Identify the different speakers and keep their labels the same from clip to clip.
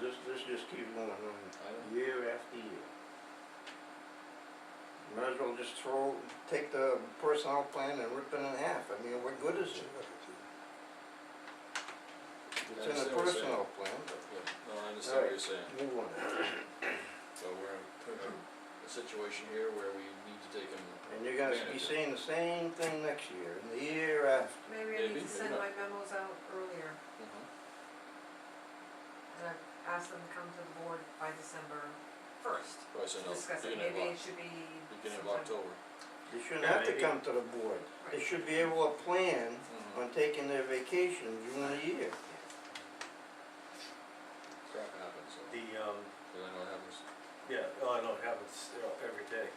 Speaker 1: this just keeps going on
Speaker 2: I don't,
Speaker 1: year after year. Might as well just throw, take the personnel plan and rip it in half, I mean, what good is it? It's in the
Speaker 2: understand what you're saying.
Speaker 1: personnel plan,
Speaker 2: yeah, no, I understand what you're saying,
Speaker 1: but move on.
Speaker 2: so we're in a- a situation here where we need to take and.
Speaker 1: And you're gonna be
Speaker 2: manage it.
Speaker 1: saying the same thing next year, and the year after,
Speaker 3: Maybe I
Speaker 2: Maybe,
Speaker 3: need to send
Speaker 2: maybe
Speaker 3: my memos out earlier,
Speaker 2: Mhm.
Speaker 3: and I've asked them to come to the board by December first
Speaker 2: Probably
Speaker 3: to
Speaker 2: send out
Speaker 3: discuss it,
Speaker 2: beginning of
Speaker 3: maybe it
Speaker 2: Oc-
Speaker 3: should be
Speaker 2: beginning of
Speaker 3: sometime.
Speaker 2: October.
Speaker 1: they shouldn't
Speaker 4: Yeah,
Speaker 1: have to
Speaker 4: maybe.
Speaker 1: come to the board, they should be able to plan
Speaker 2: Mhm.
Speaker 1: on taking their vacation during the year.
Speaker 2: Crap happens, so,
Speaker 4: The, um,
Speaker 2: cause I know it happens.
Speaker 4: yeah, oh, I know, it happens, you know, every day.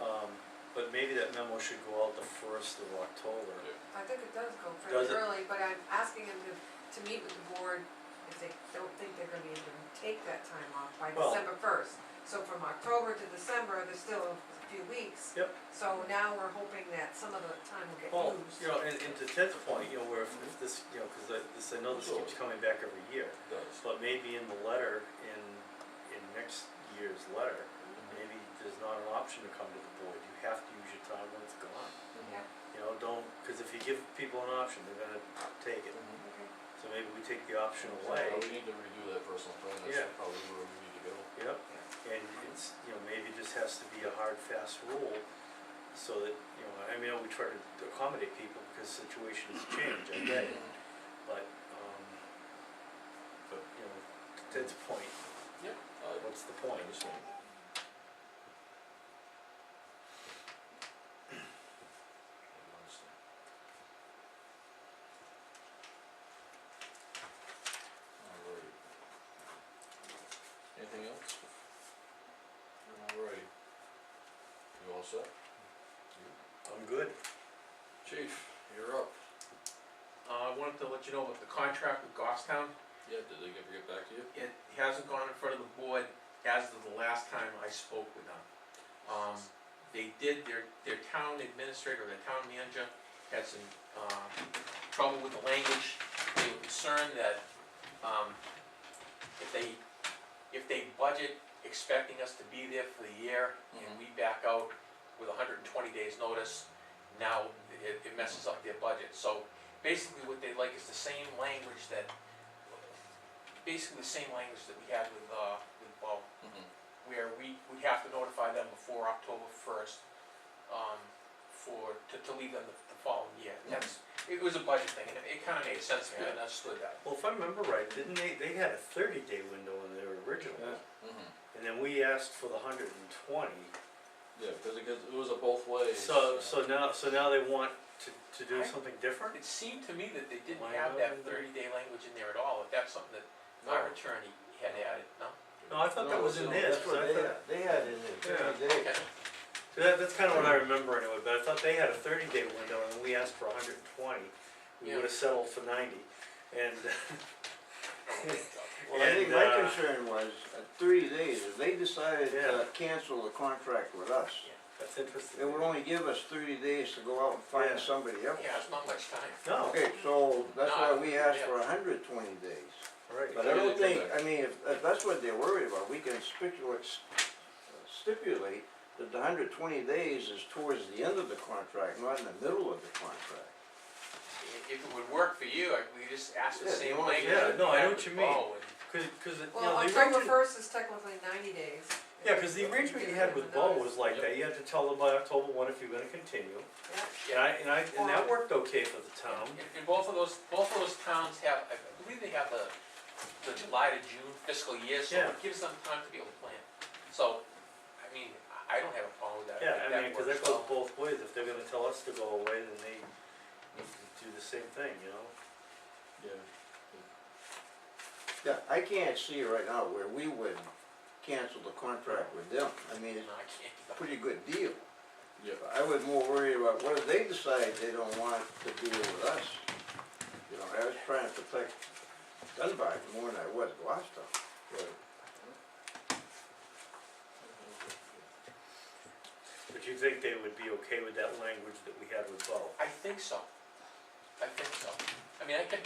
Speaker 4: Um, but maybe that memo should go out the first of October.
Speaker 2: Yeah.
Speaker 3: I think it does go
Speaker 4: Does
Speaker 3: pretty
Speaker 4: it?
Speaker 3: early, but I'm asking them to, to meet with the board if they don't think they're gonna be able to take that time off by
Speaker 4: Well-
Speaker 3: December first. So from October to December, there's still a few weeks.
Speaker 4: Yep.
Speaker 3: So now we're hoping that some of the time will get
Speaker 4: Well,
Speaker 3: used.
Speaker 4: you know, and, and to Ted's point, you know, where if if this, you know, cause I, this, I know this keeps coming back every year,
Speaker 2: It does.
Speaker 4: but maybe in the letter, in, in next year's letter, maybe there's not an option to come to the board, you have to use your time when it's gone.
Speaker 2: Mhm.
Speaker 3: Yeah,
Speaker 4: You know, don't, cause if you give people an option, they're gonna take it,
Speaker 2: Mhm.
Speaker 3: okay.
Speaker 4: so maybe we take the option
Speaker 2: So,
Speaker 4: away,
Speaker 2: We need to redo that personal plan,
Speaker 4: Yeah.
Speaker 2: that's probably where we need to go.
Speaker 4: yep, and it's, you know, maybe this has to be a hard, fast rule, so that, you know, I mean, we try to accommodate people because situations change, I get it. But, um, but, you know, to Ted's point,
Speaker 2: Yeah. I
Speaker 4: what's the
Speaker 2: I
Speaker 4: point?
Speaker 2: understand. I understand. Alright. Anything else? Alright. You all set?
Speaker 4: I'm good.
Speaker 2: Chief, you're up.
Speaker 5: Uh, I wanted to let you know about the contract with Goffstown.
Speaker 2: Yeah, did they ever get back to you?
Speaker 5: It hasn't gone in front of the board as of the last time I spoke with them. Um, they did, their, their town administrator, their town manager had some, uh, trouble with the language. They were concerned that, um, if they, if they budget expecting us to be there for the year and we back out with hundred and twenty days notice, now it, it messes up their budget. So basically what they like is the same language that, basically the same language that we had with, uh, with Bo,
Speaker 2: Mm-hmm.
Speaker 5: where we, we have to notify them before October first, um, for, to, to leave them the, the following year. That's, it was a budget thing, and it kinda made sense to me, and I understood that.
Speaker 4: Well, if I remember right, didn't they, they had a thirty day window in their original,
Speaker 1: Yeah.
Speaker 2: Mm-hmm.
Speaker 4: and then we asked for the hundred and twenty.
Speaker 2: Yeah, because it gets, it was a both ways. uh,
Speaker 4: So, so now, so now they want to, to do
Speaker 5: I-
Speaker 4: something different?
Speaker 5: It seemed to me that they didn't
Speaker 4: Why
Speaker 5: have that
Speaker 4: not?
Speaker 5: thirty-day language in there at all, if that's something that
Speaker 2: no.
Speaker 5: our attorney had added, no?
Speaker 4: No, I thought that
Speaker 2: No,
Speaker 4: was
Speaker 2: it's
Speaker 4: in
Speaker 2: not.
Speaker 4: his,
Speaker 1: That's
Speaker 4: 'cause
Speaker 1: what
Speaker 4: I
Speaker 1: they
Speaker 4: thought,
Speaker 1: had, they had in there, thirty days.
Speaker 5: Okay.
Speaker 4: So that, that's kinda what I remember anyway, but I thought they had a thirty day window and we asked for hundred and twenty, we
Speaker 5: Yeah.
Speaker 4: would've settled for ninety, and,
Speaker 1: Well, I think my
Speaker 4: And, uh,
Speaker 1: concern was, uh, thirty days, if they decided
Speaker 4: Yeah.
Speaker 1: to cancel the contract with us,
Speaker 4: that's interesting.
Speaker 1: it would only give us thirty days to go out and
Speaker 4: Yeah.
Speaker 1: find somebody else.
Speaker 5: Yeah, it's not much time.
Speaker 4: No,
Speaker 1: Okay, so that's why
Speaker 5: No,
Speaker 1: we asked
Speaker 5: yeah.
Speaker 1: for hundred twenty days,
Speaker 4: right.
Speaker 1: but I
Speaker 2: Yeah,
Speaker 1: don't
Speaker 2: they
Speaker 1: think,
Speaker 2: did
Speaker 1: I mean, if, if that's what they're worried about, we can stipulate, stipulate that the hundred twenty days is towards the end of the contract, not in the middle of the contract.
Speaker 5: I- If it would work for you, I- we just ask the
Speaker 1: Yeah,
Speaker 5: same
Speaker 1: you want-
Speaker 5: language.
Speaker 4: yeah,
Speaker 5: that
Speaker 4: no,
Speaker 5: we
Speaker 4: I
Speaker 5: had
Speaker 4: know what
Speaker 5: with
Speaker 4: you mean.
Speaker 5: Bo, and-
Speaker 4: Cause, cause, it- you
Speaker 3: Well,
Speaker 4: know, the
Speaker 3: October
Speaker 4: origin-
Speaker 3: first is technically ninety days.
Speaker 4: Yeah, cause the arrangement you had with Bo was like that, you had to tell them by October one if you're gonna continue,
Speaker 3: Yeah.
Speaker 4: and I, and I, and that worked okay for the town.
Speaker 5: And, and both of those, both of those towns have, I believe they have the, the July to June fiscal year, so
Speaker 4: Yeah.
Speaker 5: it gives them time to be able to plan. So, I mean, I- I don't have a problem with that.
Speaker 4: Yeah,
Speaker 5: if
Speaker 4: I mean, cause that
Speaker 5: works
Speaker 4: goes
Speaker 5: well.
Speaker 4: both ways, if they're gonna tell us to go away, then they need to do the same thing, you know?
Speaker 2: Yeah.
Speaker 1: Yeah, I can't see right now where we would cancel the contract with them, I mean, it's
Speaker 5: No, I can't do
Speaker 1: a
Speaker 5: that.
Speaker 1: pretty good deal.
Speaker 2: Yeah.
Speaker 1: I was more worried about what if they decide they don't want to deal with us. You know, I was trying to protect Dunbar more than I was Gloucester.
Speaker 2: Right.
Speaker 4: But you think they would be okay with that language that we had with Bo?
Speaker 5: I think so. I think so. I mean, I can,